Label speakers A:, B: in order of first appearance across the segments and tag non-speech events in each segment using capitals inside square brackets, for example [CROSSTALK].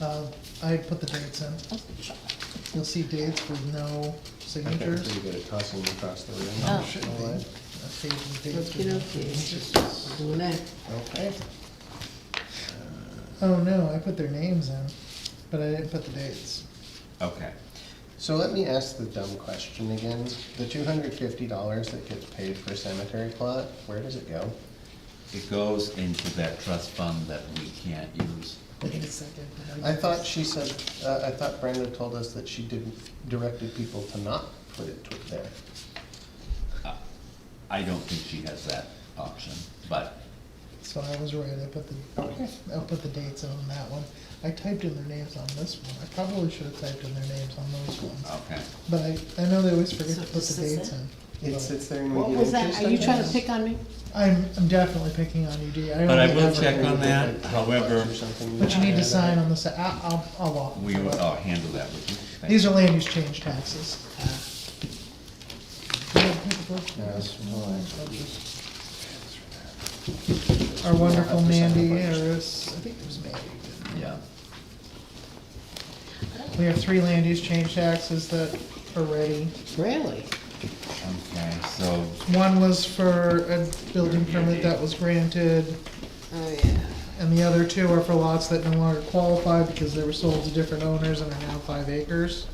A: Uh, I put the dates in. You'll see dates with no
B: I
A: signature.
B: think it's pretty good at tossing them across the room.
C: Oh.
A: Should be a page with dates with no signatures.
C: Okey-dokey. Doing it.
B: Okay.
A: Oh, no, I put their names in, but I didn't put the dates.
B: Okay. So let me ask the dumb question again. The two hundred fifty dollars that gets paid for cemetery plot, where does it go?
D: It goes into that trust fund that we can't use.
A: Wait a second. how do you-
B: I thought she said, uh, I thought Brenda told us that she didn't, directed people to not put it to- there.
D: Uh, I don't think she has that option, but
A: So I was right, I put the, I put the dates in on that one. I typed in their names on this one. I probably should have typed in their names on those ones.
D: okay.
A: But I, I know they always forget
C: So
A: to put
C: this
A: the
C: is
A: dates
C: it?
A: in.
B: It
A: But
B: sits there and we
C: What
B: get
C: was that?
B: interest
C: Are you
B: on
C: trying
B: it?
C: to pick on me?
A: I'm, I'm definitely picking on you, Dee.
D: But I
A: only
D: will
A: ever-
D: check on that, however,
B: Or something.
A: But you need to sign on the, sa- I- I'll, I'll walk.
D: we will, I'll handle that with you. Thank
A: These
D: you.
A: are land use change taxes. Do you have paperwork?
B: Yes, well,
A: Our wonderful Mandy Harris, I think it was Mandy.
D: Yeah,
A: We have three land use change taxes that are ready.
C: Really?
D: okay, so,
A: One was for a building permit that was granted,
C: Oh, yeah.
A: and the other two are for lots that no longer qualify because they were sold to different owners and are now five acres.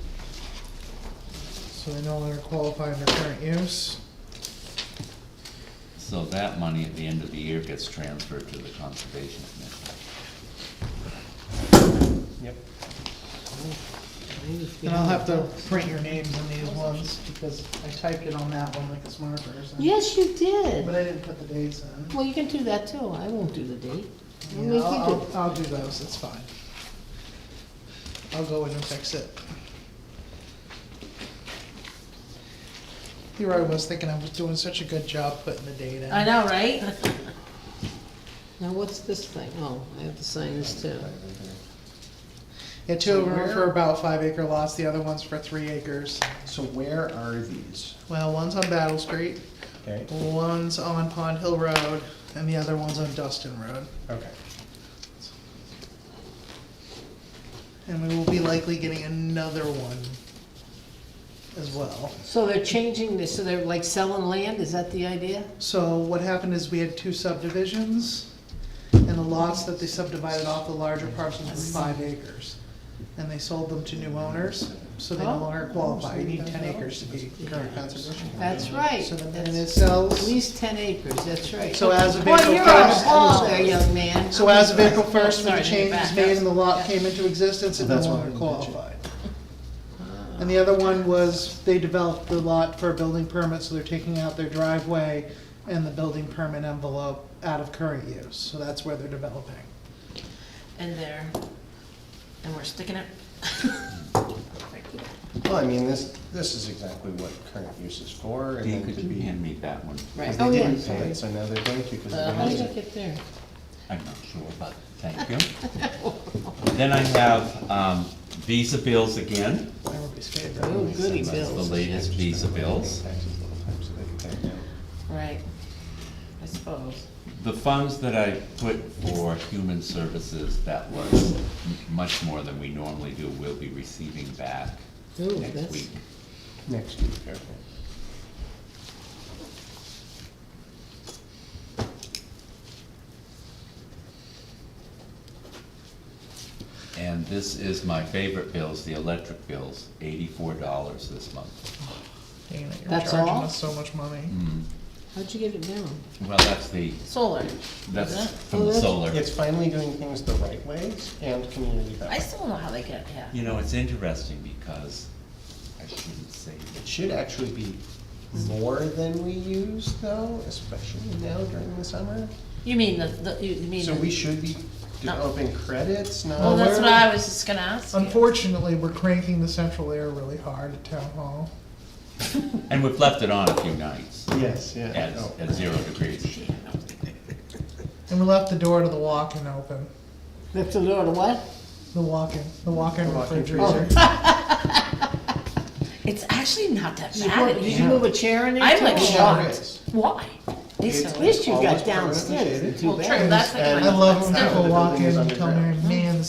A: So they no longer qualify under current use.
D: so that money at the end of the year gets transferred to the conservation commission.
B: Yep.
A: And I'll have to print your names on these ones, because I typed it on that one with this marker, so.
C: Yes, you
A: But
C: did.
A: I didn't put the dates in.
C: Well, you can do that too. I won't do the date. We'll
A: Yeah,
C: make you
A: I'll,
C: do-
A: I'll I'll do those, it's fine. I'll go in and fix it. Here I was thinking I was doing such a good job putting the date in.
C: I know, right? Now, what's this thing? Oh, I have to sign this too.
A: Yeah, two of them are for about five acre lots, the other one's for three acres.
B: So where are these?
A: Well, one's on Battle Street,
B: Okay,
A: one's on Pond Hill Road, and the other one's on Dustin Road.
B: okay.
A: And we will be likely getting another one as well.
C: So they're changing this, so they're like selling land? Is that the idea?
A: So what happened is we had two subdivisions, and the lots that they subdivided off the larger parcels were five acres. And they sold them to new owners, so
C: Oh.
A: they no longer qualify, you need ten acres to be current conservation.
C: That's right.
A: Uh, So then it
C: That's- At
A: sells,
C: least ten acres, that's right.
A: so as of
C: Boy,
A: April
C: you're on a
A: first.
C: wall there, young man.
A: So as of April first, when
C: Sorry,
A: the change was
C: back
A: made
C: up.
A: and the lot came into existence, it no
B: That's why
A: longer
B: we
A: qualified.
C: Ah.
A: And the other one was, they developed the lot for a building permit, so they're taking out their driveway and the building permit envelope out of current use, so that's where they're developing.
C: And there, and we're sticking [LAUGHS] it.
B: Well, I mean, this, this is exactly what current use is for, and
D: Dee,
B: then
D: could
B: to
D: you
B: be.
D: hand me that one?
C: Right.
B: They
C: Oh, yeah.
B: didn't pay it, so now they're going to, because
C: Uh,
B: they're
C: How
B: going
C: did I
B: to.
C: get there?
D: I'm not sure, but thank you. Then I have, um, visa bills again.
A: Everybody's favorite.
C: Oh, goody
D: That's the
C: bills.
D: latest visa bills.
B: Taxes a little time, so they can pay it now.
C: Right, I suppose.
D: The funds that I put for human services, that was m- much more than we normally do, we'll be receiving back
C: Ooh,
D: next
C: Oh, that's-
D: week.
B: Next week, okay.
D: And this is my favorite bills, the electric bills, eighty-four dollars this month.
A: Dang it, You're
C: That's
A: charging
C: all?
A: us so much money.
B: Mm.
C: How'd you get it down?
D: Well, that's the,
C: Solar.
D: that's
C: Is that-
D: from the
C: oh, that's-
D: solar.
B: It's finally doing things the right ways and community
E: I
B: that way.
E: still don't know how they get, yeah.
D: You know, it's interesting because, I shouldn't say
B: It should actually be more than we use though, especially now during the summer.
E: You mean the, the, you you mean,
B: So we
E: the-
B: should be developing credits, not.
E: well, that's
A: where-
E: what I was just gonna ask you.
A: Unfortunately, we're cranking the central air really hard at town hall.
D: that. And we've left it on a few nights
B: Yes, yeah.
D: at,
B: Oh.
D: at zero degrees.
A: And we left the door to the walk-in open,
C: That's a little what?
A: the walk-in, the walk-in
B: The walk-in
A: refrigerator.
E: It's actually not that
C: Did you
E: bad.
C: put-
E: in
C: did you
E: here.
C: move a chair in there?
E: I'm like
C: too? Oh,
B: It
E: shocked.
B: is.
E: Why? They
B: It's-
E: so-
C: At least you
B: Always
C: got
B: permanently
C: downstairs,
B: shaded.
C: too
E: Well,
C: bad.
E: true, that's like
B: And-
A: I
E: my-
A: love when
E: that's
B: Now
A: people
B: the
A: walk
B: building
A: in
B: is
A: and tell me,
B: underground.
A: man, the